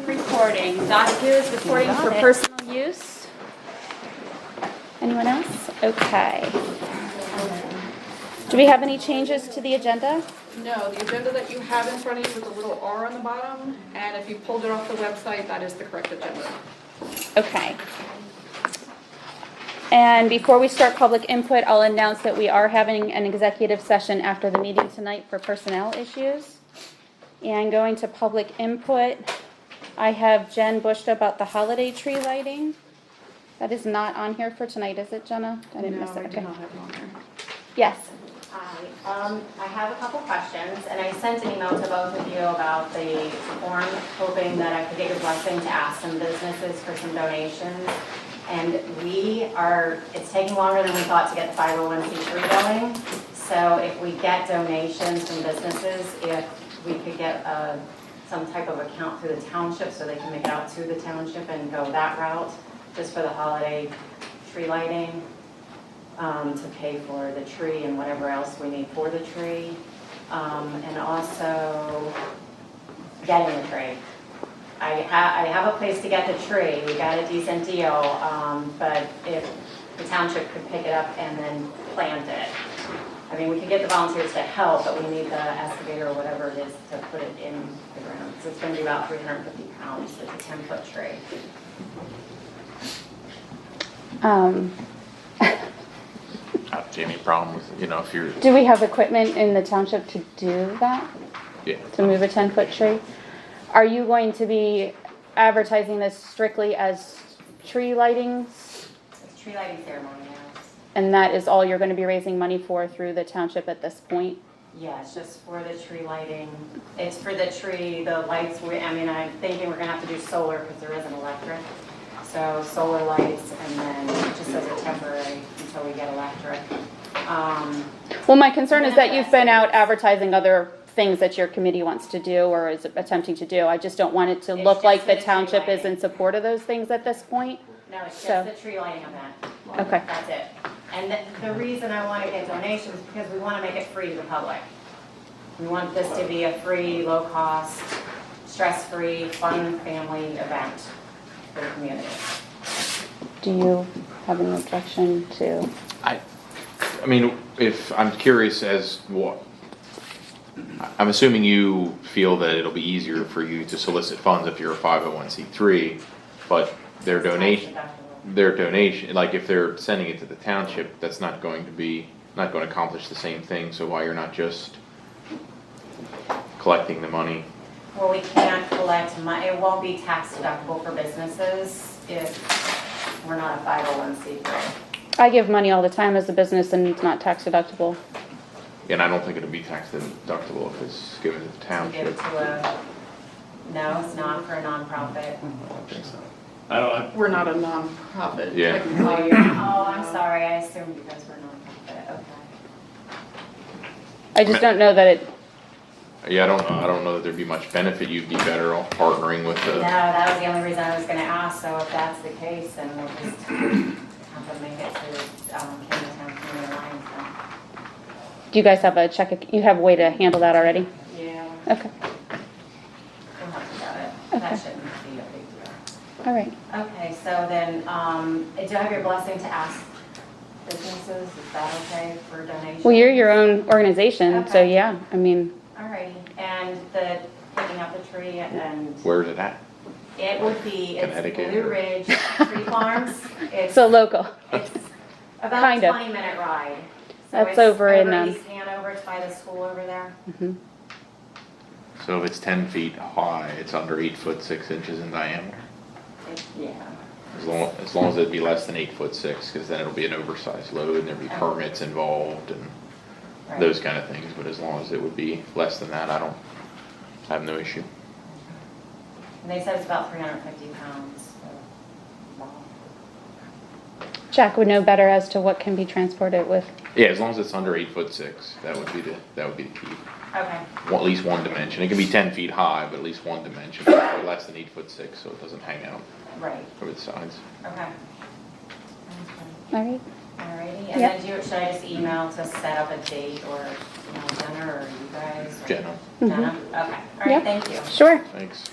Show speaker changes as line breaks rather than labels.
recording. Donahue is recording for personal use. Anyone else? Okay. Do we have any changes to the agenda?
No, the agenda that you have in front of you with the little R on the bottom, and if you pulled it off the website, that is the correct agenda.
Okay. And before we start public input, I'll announce that we are having an executive session after the meeting tonight for personnel issues. And going to public input, I have Jen Bush about the holiday tree lighting. That is not on here for tonight, is it, Jenna? I didn't miss it, okay.
have it on there.
Yes,
Hi, um, I have a couple questions, and I sent an email to both of you about the form, hoping that I could get your blessing to ask some businesses for some donations. And we are, it's taking longer than we thought to get the 501c3 going. So if we get donations from businesses, if we could get uh, some type of account through the township so they can make it out to the township and go that route, just for the holiday tree lighting um, to pay for the tree and whatever else we need for the tree. Um, and also getting the tree. I ha, I have a place to get the tree, we got a decent deal, um, but if the township could pick it up and then plant it. I mean, we could get the volunteers to help, but we need the excavator or whatever it is to put it in the ground. So it's gonna be about three hundred and fifty pounds, it's a ten foot tree.
um,
I don't see any problem with, you know, if you're,
do we have equipment in the township to do that?
yeah.
to move a ten-foot tree. Are you going to be advertising this strictly as tree lightings?
It's tree lighting ceremony, yes.
And that is all you're gonna be raising money for through the township at this point?
Yeah, it's just for the tree lighting. It's for the tree, the lights, we, I mean, I'm thinking we're gonna have to do solar because there isn't electric. So solar lights and then just as a temporary until we get electric. Um,
Well, my concern is that you've been out advertising other things that your committee wants to do or is attempting to do. I just don't want it to
It's
look
just
like
for
the
the tree
township is
lighting.
in support of those things at this point.
No, it's
So-
just the tree lighting event.
Okay.
That's it. And the, the reason I wanna get donations is because we wanna make it free to the public. We want this to be a free, low-cost, stress-free, fun family event for the community.
Do you have an objection to?
I, I mean, if, I'm curious as what, I- I'm assuming you feel that it'll be easier for you to solicit funds if you're a five oh one C three, but their
It's tax
donation,
deductible.
their donation, like if they're sending it to the township, that's not going to be, not gonna accomplish the same thing, so why you're not just collecting the money?
Well, we can't collect money, it won't be tax deductible for businesses if we're not a 501c3.
I give money all the time as a business and it's not tax deductible.
And I don't think it'll be tax deductible if it's given to the
To give
township.
it to a, no, it's not for a nonprofit.
I don't think so.
I don't,
We're not a nonprofit.
Yeah.
technically.
Oh, I'm sorry, I assumed you guys were nonprofit, okay.
I just don't know that it,
Yeah, I don't, I don't know that there'd be much benefit, you'd be better off partnering with
No,
the,
that was the only reason I was gonna ask, so if that's the case, then we'll just have to make it to, um, Town Community Alliance then.
do you guys have a check, you have a way to handle that already?
Yeah.
Okay,
We'll have to get it, that
Okay.
shouldn't be a big deal.
all right.
Okay, so then, um, do I have your blessing to ask businesses, is that okay for donation?
Well, you're your own organization, so
Okay.
yeah, I mean,
Alrighty, and the picking up the tree and
where's it at?
it would be, it's
Connecticut.
Blue Ridge Tree Farms. It's,
so local.
it's about a
Kind of.
twenty minute ride. So
That's
it's
over in, um,
East Hanover, it's by the school over there.
So if it's ten feet high, it's under eight foot six inches in diameter,
It- Yeah.
as long, as long as it'd be less than eight foot six, cause then it'll be an oversized load and there'd be permits involved and
right.
those kind of things, but as long as it would be less than that, I don't, I have no issue.
And they said it's about three hundred and fifty pounds, so, wow.
Jack would know better as to what can be transported with.
Yeah, as long as it's under eight foot six, that would be the, that would be the key,
Okay,
Well, at least one dimension, it can be ten feet high, but at least one dimension, less than eight foot six, so it doesn't hang out
right,
over the sides.
okay. Okay.
All right.
Alrighty, and
Yep.
then do, you- should I just email to set up a date or, you know, Jenna or you guys? or-
Jenna.
Jenna, okay,
Mm-hmm. Yep.
alright, thank you.
Sure.
Thanks.